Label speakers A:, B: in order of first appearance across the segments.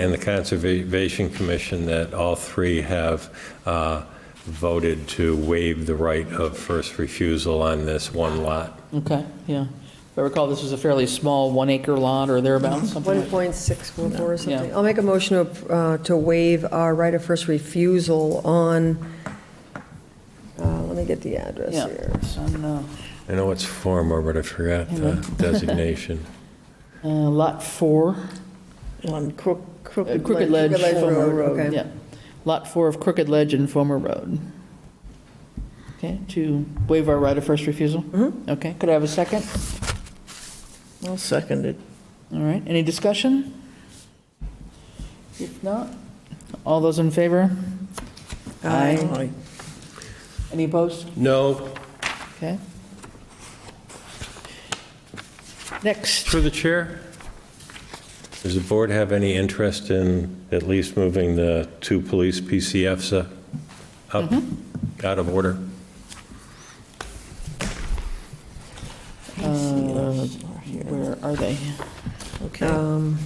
A: and the Conservation Commission that all three have uh, voted to waive the right of first refusal on this one lot.
B: Okay, yeah. If I recall, this was a fairly small one-acre lot or thereabouts, something like that.
C: 1.644 or something.
B: Yeah.
C: I'll make a motion to, uh, to waive our right of first refusal on, uh, let me get the address
B: Yeah,
C: here.
B: it's on, uh,
A: I know it's former, but I forgot the designation.
B: uh, Lot 4,
D: On Crook-
B: uh,
D: Crooked
B: Crooked Ledge.
C: Crooked Ledge
B: Fulmer
C: Road, okay.
B: Yeah. Lot 4 of Crooked Ledge and Fulmer Road. Okay, to waive our right of first refusal? Mm-hmm. Okay, could I have a second?
D: I'll second it.
B: All right, any discussion? If not, all those in favor?
D: Aye.
B: Any opposed?
A: No,
B: Okay. Next,
A: through the chair. Does the board have any interest in at least moving the two police PCFs up- up, out of order?
B: uh, where are they?
D: Okay,
C: Um,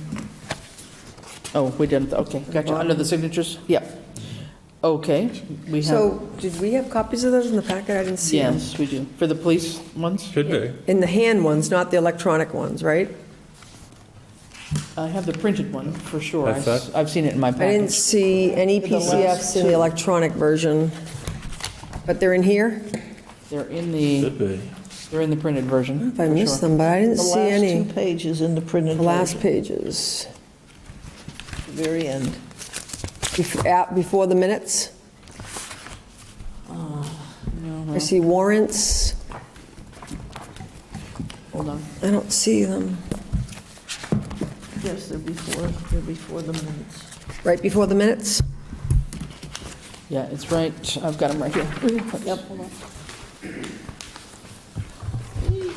B: Oh, we didn't, okay, gotcha, under the signatures? Yeah. Okay, we have,
C: So did we have copies of those in the packet? I didn't see them.
B: yes, we do. For the police ones?
A: Should be.
C: In the hand ones, not the electronic ones, right?
B: I have the printed one, for sure.
A: I
B: I've
A: thought-
B: I've seen it in my
C: I didn't
B: package.
C: see any
B: The last
C: PCFs in the
B: two.
C: electronic version, but they're in here?
B: They're in the,
A: Should be.
B: they're in the printed version,
C: If I
B: for
C: missed
B: sure.
C: them, but I didn't
D: the
C: see
D: last two
C: any.
D: pages in the printed
C: The last
D: version,
C: pages.
D: the very end.
C: Bef- at- Before the minutes? Uh,
B: No,
C: I
B: well,
C: see warrants.
B: Hold on.
C: I don't see them.
D: Yes, they're before, they're before the minutes.
C: Right before the minutes?
B: Yeah, it's right, I've got them right here. Yep, hold on.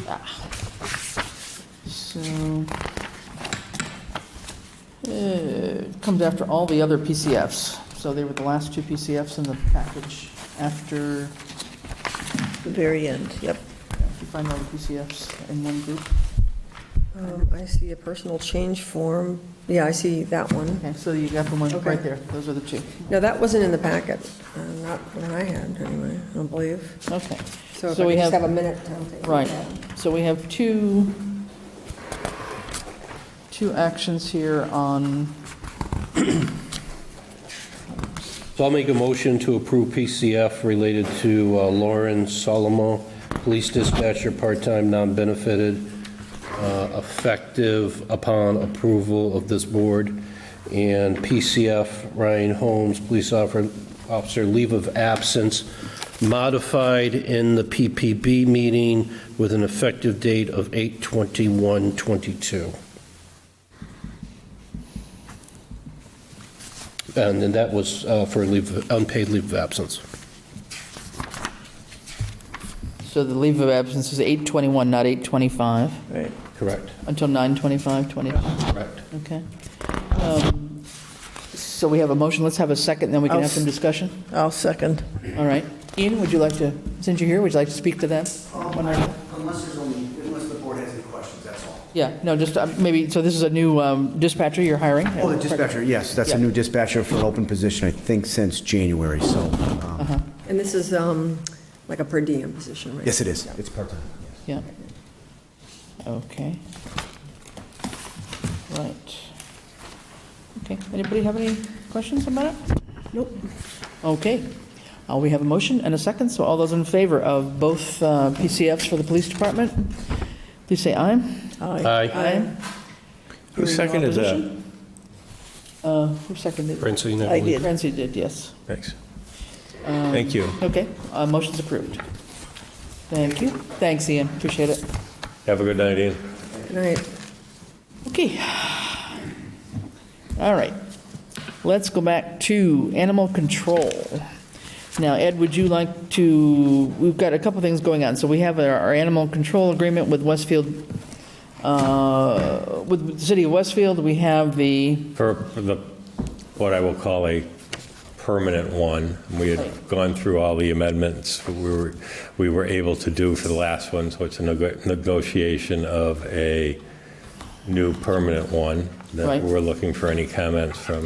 B: Ah. So, uh, it comes after all the other PCFs. So they were the last two PCFs in the package after, if
D: The very end, yep.
B: you find all the PCFs in one group.
C: Um, I see a personal change form. Yeah, I see that one.
B: Okay, so you got the one
C: Okay.
B: right there, those are the two.
C: No, that wasn't in the packet. Uh, Not what I had, anyway, I don't believe.
B: Okay.
C: So if
B: So
C: I
B: we
C: just
B: have-
C: have a minute, I'll take a
B: Right,
C: look at it.
B: so we have two, two actions here on,
E: So I'll make a motion to approve PCF related to uh, Lauren Solomo, police dispatcher, part-time, non-benefited, uh, effective upon approval of this board, and PCF Ryan Holmes, police officer, officer leave of absence, modified in the PPB meeting with an effective date of 8/21/22. And then that was uh, for leave, unpaid leave of absence.
B: so the leave of absence is 8:21, not 8:25,
D: Right.
E: Correct.
B: until 9:25, 25,
E: Correct.
B: okay. Um, So we have a motion, let's have a second, then we can
D: I'll
B: have some
D: s-
B: discussion.
D: I'll second.
B: All right. Ian, would you like to, since you're here, would you like to speak to them? One
F: Um,
B: or-
F: Unless there's only, unless the board has any questions, that's all.
B: Yeah, no, just uh, maybe, so this is a new um, dispatcher you're hiring?
F: Oh, the dispatcher, yes, that's a new dispatcher for an open position, I think since January, so, um,
C: And this is um, like a per diem position, right?
F: yes, it is. It's part-time.
B: Yeah. Okay. Right. Okay, anybody have any questions about it? Nope. Okay. Uh, We have a motion and a second, so all those in favor of both uh, PCFs for the police department, please say aye.
E: Aye.
A: Who
B: Hearing no
A: seconded that?
B: opposition? Uh, Who seconded? it? Oh,
E: Francine, I
D: I
E: believe.
D: did.
B: Francie did, yes.
A: Thanks. Thank you.
B: Okay, uh, motion's approved. Thank you. Thanks, Ian, appreciate it.
A: Have a good night, Ian.
C: Good night.
B: Okay. All right. Let's go back to animal control. Now, Ed, would you like to, we've got a couple things going on. So we have our our animal control agreement with Westfield, uh, with the city of Westfield. We have the,
A: For the, what I will call a permanent one, we had gone through all the amendments we were, we were able to do for the last one, so it's a nego- negotiation of a new permanent one, that
B: Right.
A: we're looking for any comments from